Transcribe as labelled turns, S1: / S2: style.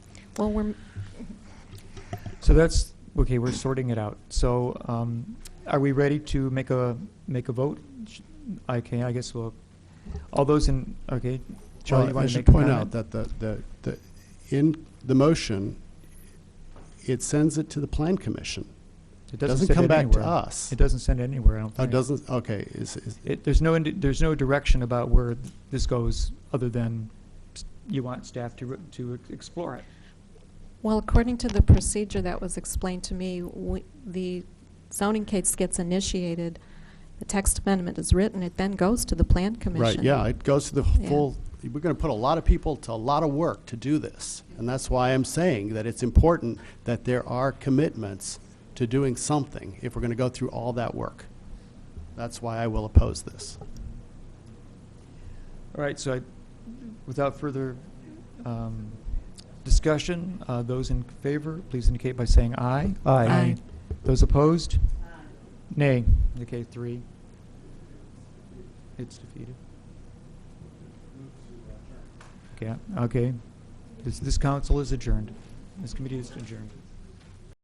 S1: Well, we're,
S2: So that's, okay, we're sorting it out. So um, are we ready to make a, make a vote? Sh- Okay, I guess we'll, all those in, okay, Charlie, you
S3: Well, I
S2: want to
S3: should
S2: make a
S3: point out
S2: comment?
S3: that the, the, the, in the motion, it sends it to the plan commission.
S2: It
S3: Doesn't
S2: send
S3: come
S2: it
S3: back to
S2: anywhere.
S3: us.
S2: It doesn't send it anywhere, I don't
S3: Oh,
S2: think.
S3: it doesn't, okay, is, is,
S2: It, there's no, indi- there's no direction about where th- this goes, other than s- you want staff to, re- to ex- explore it.
S1: well, according to the procedure that was explained to me, we- the zoning case gets initiated, the text amendment is written, it then goes to the Plan Commission.
S3: right, yeah, it goes to the
S1: Yeah.
S3: full, we're gonna put a lot of people to a lot of work to do this. And that's why I'm saying that it's important that there are commitments to doing something if we're gonna go through all that work. That's why I will oppose this.
S2: All right, so I, without further um, discussion, uh, those in favor, please indicate by saying aye.
S1: Aye.
S2: Those opposed? Nay. Okay, three. It's defeated. Okay, okay. This, this council is adjourned. This committee is adjourned.